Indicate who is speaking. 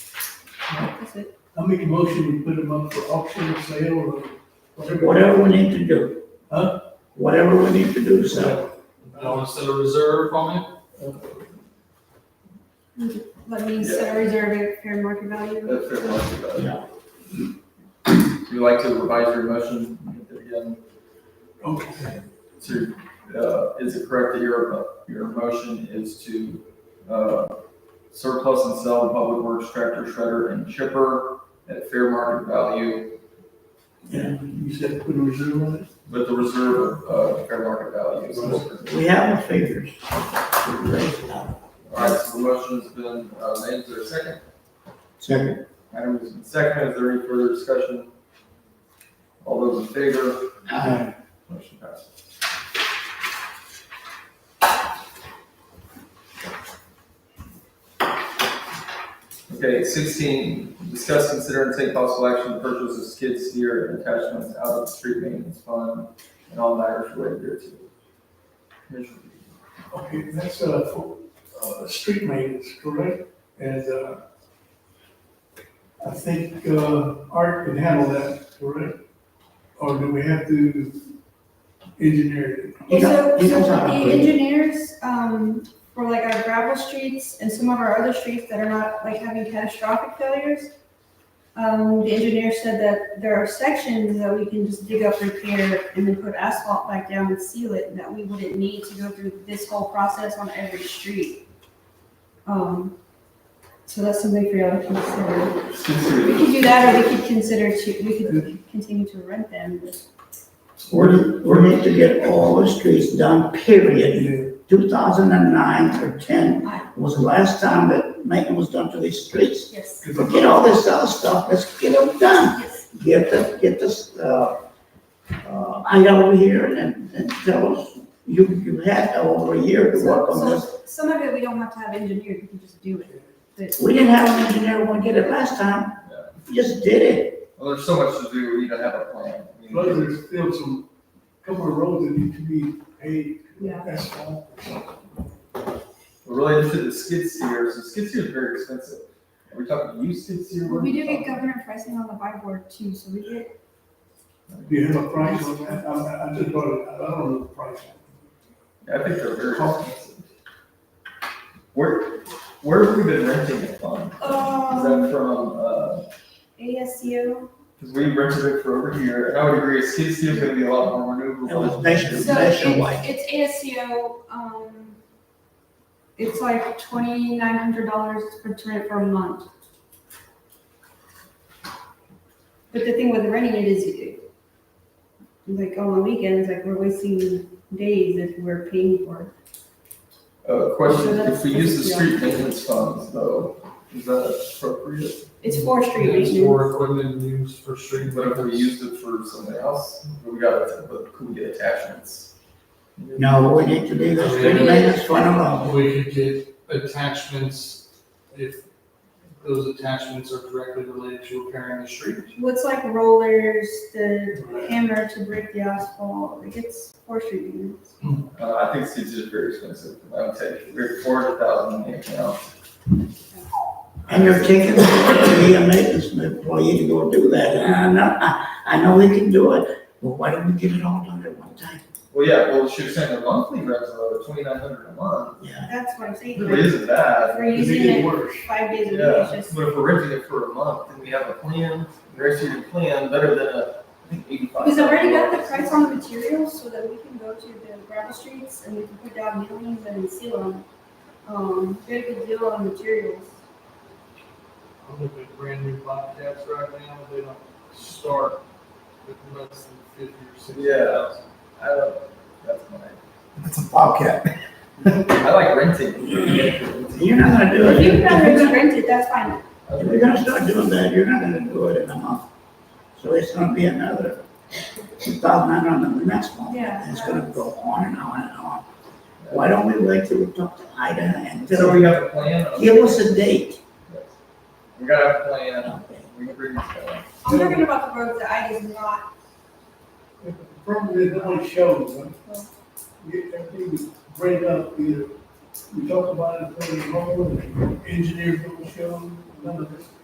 Speaker 1: That's it.
Speaker 2: I make a motion, we put them up for auction or sale or whatever.
Speaker 3: Whatever we need to do.
Speaker 2: Huh?
Speaker 3: Whatever we need to do, so.
Speaker 4: You want to set a reserve on it?
Speaker 1: Let me set a reserve at fair market value.
Speaker 4: That's fair market value.
Speaker 3: Yeah.
Speaker 4: Would you like to revise your motion again?
Speaker 2: Okay.
Speaker 4: To, uh, is it correct that your, your motion is to, uh, surplus and sell the public works tractor shredder and chipper at fair market value
Speaker 2: And you said put a reserve on it?
Speaker 4: with the reserve of, uh, fair market value? So-
Speaker 3: We have the figures. We're raising up.
Speaker 4: All right, so the motion's been, uh, made, is there a second?
Speaker 3: Second.
Speaker 4: Item has been seconded, is there any further discussion? All those in favor?
Speaker 3: Aye.
Speaker 4: Motion passes. Okay, sixteen, discuss, consider, and take possible action to purchase a skid steer and attachments out of the street maintenance fund and all matters related thereto. Commissioner Beasley.
Speaker 2: Okay, that's, uh, for, uh, street maintenance, correct? And, uh, I think, uh, Art can handle that, correct? Or do we have to engineer
Speaker 3: He
Speaker 1: So,
Speaker 3: got- he
Speaker 1: so
Speaker 3: got time
Speaker 1: the
Speaker 3: for it.
Speaker 1: engineers, um, for like our gravel streets and some of our other streets that are not like having catastrophic failures, um, the engineer said that there are sections that we can just dig up, repair, and then put asphalt back down and seal it, and that we wouldn't need to go through this whole process on every street. Um, so that's something for y'all to consider. We could do that, or we could consider to, we could continue to rent them.
Speaker 3: We're, we're need to get all the streets done, period.
Speaker 2: it?
Speaker 3: Two thousand and nine or ten was the last time that maintenance was done to these streets.
Speaker 1: Yes.
Speaker 3: Forget all this other stuff, let's get them done.
Speaker 1: Yes.
Speaker 3: Get the, get this, uh, uh, I got over here and- and, and tell us, you, you had over a year to work on
Speaker 1: So-
Speaker 3: this.
Speaker 1: so Some of it we don't have to have engineered, we can just do it. But-
Speaker 3: We didn't have an engineer when we did it last time. We Just did it.
Speaker 4: Well, there's so much to do, we need to have a plan. I mean,
Speaker 2: Plus, there's still some, couple of roads that need to be paved,
Speaker 1: Yeah.
Speaker 2: asphalt.
Speaker 4: Related to the skid steer, so skid steer is very expensive. Are we talking used skid steer? What are
Speaker 1: We do get
Speaker 4: talking?
Speaker 1: governor pricing on the buy board too, so we get,
Speaker 2: Do you have a price on that? I- I, I just bought it, I don't know the price.
Speaker 4: I think they're very expensive. Where, where have we been renting it from? Is that
Speaker 1: um,
Speaker 4: from, uh,
Speaker 1: ASCO.
Speaker 4: cause we rented it for over here, and I would agree, skid steer's gonna be a lot more
Speaker 3: It was
Speaker 4: maneuverable.
Speaker 3: nation,
Speaker 1: So
Speaker 3: nationwide.
Speaker 1: it's, it's ASCO, um, it's like twenty-nine hundred dollars for, to- for a month. But the thing with renting it is, it- like, on the weekends, like, we're wasting days if we're paying for it.
Speaker 4: Uh, question,
Speaker 1: So
Speaker 4: if we use the
Speaker 1: that's-
Speaker 4: street maintenance funds though, is that appropriate?
Speaker 1: It's for street
Speaker 5: Mm-hmm. It's
Speaker 1: maintenance.
Speaker 5: for equipment use for street,
Speaker 4: What if
Speaker 5: whatever
Speaker 4: we
Speaker 5: we
Speaker 4: used it for something else? We got, it, but could we get attachments?
Speaker 3: No, we need to do this, we made this one alone.
Speaker 5: We could get attachments if those attachments are directly related to repairing the street.
Speaker 1: What's like rollers, the hammer to break the asphalt, like it's for street maintenance.
Speaker 4: Uh, I think skid steer's very expensive, I would take, we're four hundred thousand in the account.
Speaker 3: And you're taking, be a maintenance employee to go do that. And I know, I, I know we can do it, but why don't we get it all done at one time?
Speaker 4: Well, yeah, well, she was saying the monthly rent's about twenty-nine hundred a month,
Speaker 3: Yeah,
Speaker 1: That's what I'm
Speaker 4: it
Speaker 1: saying.
Speaker 4: really isn't bad.
Speaker 1: If We're
Speaker 2: It
Speaker 1: using
Speaker 2: get
Speaker 1: it
Speaker 2: worse.
Speaker 1: five days a week,
Speaker 4: Yeah,
Speaker 1: it's
Speaker 4: but
Speaker 1: just,
Speaker 4: if we're renting it for a month, then we have a plan, an executed plan, better than a, I think eighty-five.
Speaker 1: because I already got the price on the materials so that we can go to the gravel streets and we can put down millings and seal them. Um, get a good deal on materials.
Speaker 5: I'm looking at brand new Bobcats right now, they don't start with less than fifty or sixty
Speaker 4: Yeah.
Speaker 5: thousand.
Speaker 4: I don't, that's mine.
Speaker 6: It's a bobcat.
Speaker 4: I like renting.
Speaker 3: you're not gonna do it.
Speaker 1: If you'd rather just rent it, that's fine.
Speaker 3: If you're gonna start doing that, you're not gonna do it in a month. So it's gonna be another two thousand nine hundred the next month.
Speaker 1: Yeah.
Speaker 3: And it's gonna go on and on and on. Why don't we wait till we talk to Ida and
Speaker 4: So
Speaker 3: tell her,
Speaker 4: we have a plan. on-
Speaker 3: give us a date?
Speaker 4: We gotta have a plan,
Speaker 3: Okay.
Speaker 4: we can bring this down.
Speaker 1: I'm talking about the roads that I is not,
Speaker 2: The problem is no one shows, huh? You, everything is break up, either, we talk about it, put it in the home, and engineers don't show, none of this.